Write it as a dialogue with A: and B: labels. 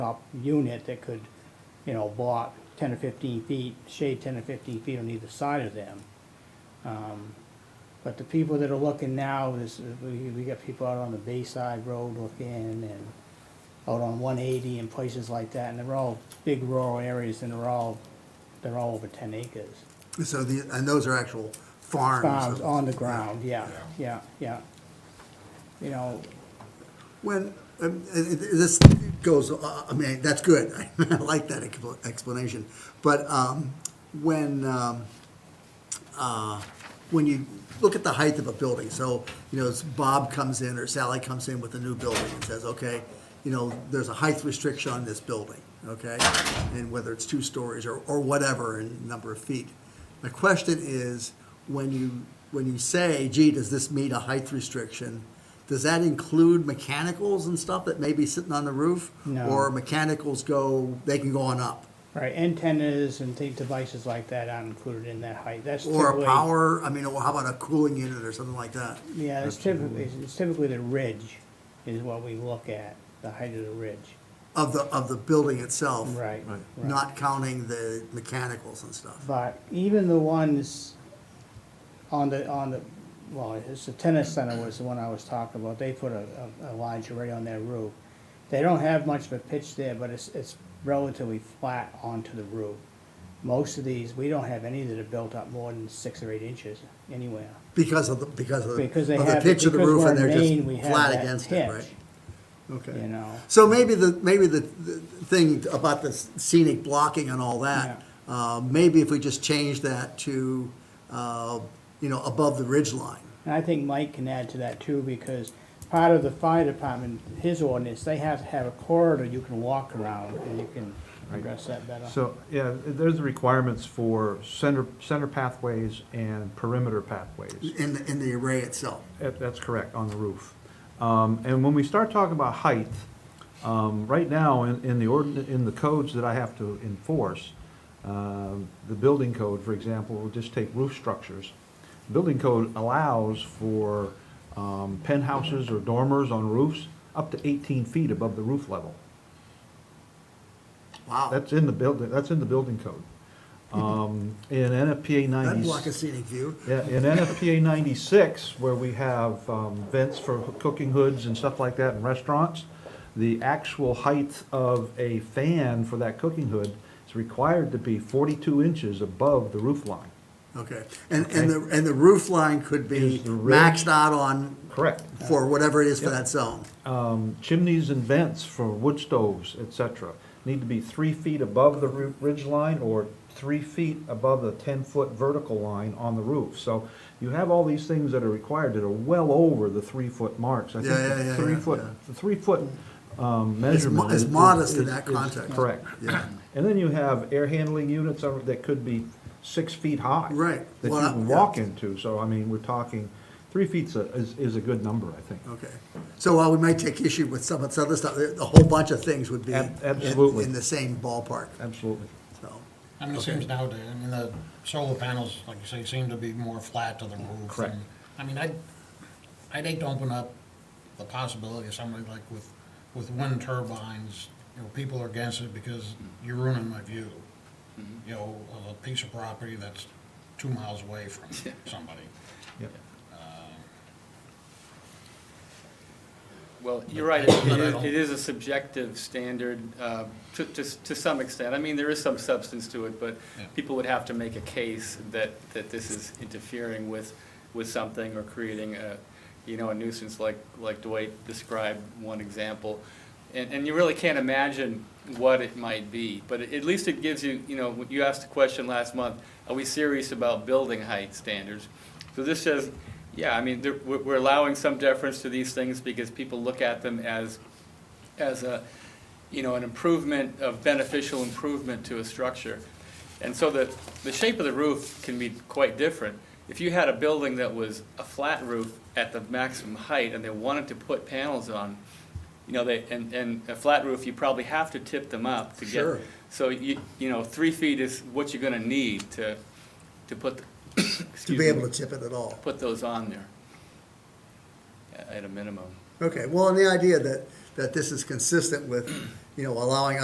A: up unit that could, you know, block ten or fifteen feet, shade ten or fifteen feet on either side of them. Um, But the people that are looking now, this, is- we, we got people out on the Bayside Road looking and out on one eighty and places like that, and they're all big rural areas and they're all, they're all over ten acres.
B: So the, and those are actual farms?
A: Farms on the ground, yeah, yeah, yeah. You know,
B: When, um, i- i- this goes, uh, I mean, that's good, I like that expl- explanation. But um, when, um, uh, when you look at the height of a building, so, you know, as Bob comes in or Sally comes in with a new building and says, okay, you know, there's a height restriction on this building, okay? And whether it's two stories or, or whatever in number of feet. My question is, when you, when you say, gee, does this meet a height restriction? Does that include mechanicals and stuff that may be sitting on the roof?
A: No.
B: Or mechanicals go, they can go on up?
A: right, antennas and things, devices like that aren't included in that height, that's
B: Or
A: typically-
B: a power, I mean, or how about a cooling unit or something like that?
A: Yeah, it's typically, it's typically the ridge is what we look at, the height of the ridge.
B: Of the, of the building itself?
A: Right.
C: Right.
A: right.
B: Not counting the mechanicals and stuff.
A: But even the ones on the, on the, well, it's the tennis center was the one I was talking about, they put a, a a large array on their roof. They don't have much of a pitch there, but it's, it's relatively flat onto the roof. Most of these, we don't have any that are built up more than six or eight inches anywhere.
B: Because of the, because of the
A: Because they
B: of the
A: have,
B: pitch
A: because
B: of the roof
A: we're
B: and
A: in
B: they're
A: Maine, we
B: just
A: have
B: flat
A: that
B: against it, right?
A: pitch, you
B: Okay.
A: know.
B: So maybe the, maybe the, the thing about the scenic blocking and all that, uh, maybe if we just change that to, uh, you know, above the ridge line.
A: And I think Mike can add to that too, because part of the fire department, his ordinance, they have to have a corridor you can walk around, and you can address that better.
C: So, yeah, there's the requirements for center, center pathways and perimeter pathways.
B: in, the- in the array itself.
C: That- That's correct, on the roof. Um, And when we start talking about height, um, right now, in, in the ordin, in the codes that I have to enforce, um, the building code, for example, we'll just take roof structures. Building code allows for um, penthouses or dormers on roofs up to 18 feet above the roof level.
B: Wow,
C: That's in the building, that's in the building code. Um, in NFPA
B: that'd block a
C: ninety,
B: scenic view.
C: yeah, in NFPA ninety-six, where we have, um, vents for cooking hoods and stuff like that in restaurants, the actual height of a fan for that cooking hood is required to be forty-two inches above the roof line.
B: Okay, and, and the, and the roof line could be
C: Is the ridge-
B: maxed out on
C: Correct.
B: for whatever it is for that zone.
C: Um, chimneys and vents for wood stoves, et cetera, need to be three feet above the roo- ridge line or three feet above the ten-foot vertical line on the roof. So you have all these things that are required that are well over the three-foot marks. I think
B: Yeah, yeah,
C: the
B: yeah, yeah,
C: three-foot,
B: yeah.
C: the three-foot um, measurement.
B: is
C: is-
B: modest in
C: is-
B: that
C: is
B: context.
C: Correct.
B: Yeah.
C: And then you have air handling units on- that could be six feet high.
B: Right.
C: That you
B: Well, I-
C: can
B: yeah.
C: walk into. So, I mean, we're talking, three feet's a- is, is a good number, I think.
B: Okay, so while we might take issue with some of this other stuff, a whole bunch of things would be
C: Ab-
B: in-
C: absolutely.
B: in the same ballpark,
C: Absolutely.
B: so.
D: I mean, it seems nowadays, I mean, the solar panels, like you say, seem to be more flat to the roof.
C: Correct.
D: and- I mean, I'd, I'd hate to open up the possibility of somebody like with, with wind turbines, you know, people are against it because you're ruining my view. You know, of a piece of property that's two miles away from somebody.
C: Yep.
E: Well, you're right, it is- it is a subjective standard uh, to, to, to some extent. I mean, there is some substance to it, but
D: Yeah.
E: people would have to make a case that, that this is interfering with, with something or creating a, you know, a nuisance like, like Dwight described, one example. And, and you really can't imagine what it might be, but at least it gives you, you know, you asked the question last month, are we serious about building height standards? So this says, yeah, I mean, there- we're we're allowing some deference to these things because people look at them as, as a, you know, an improvement, a beneficial improvement to a structure. And so the, the shape of the roof can be quite different. If you had a building that was a flat roof at the maximum height and they wanted to put panels on, you know, they, and, and a flat roof, you probably have to tip them up to get.
B: Sure.
E: So you, you know, three feet is what you're gonna need to, to put, the-
B: To
E: excuse
B: be
E: me,
B: able to tip it at all.
E: put those on there a- at a minimum.
B: Okay, well, and the idea that that this is consistent with, you know, allowing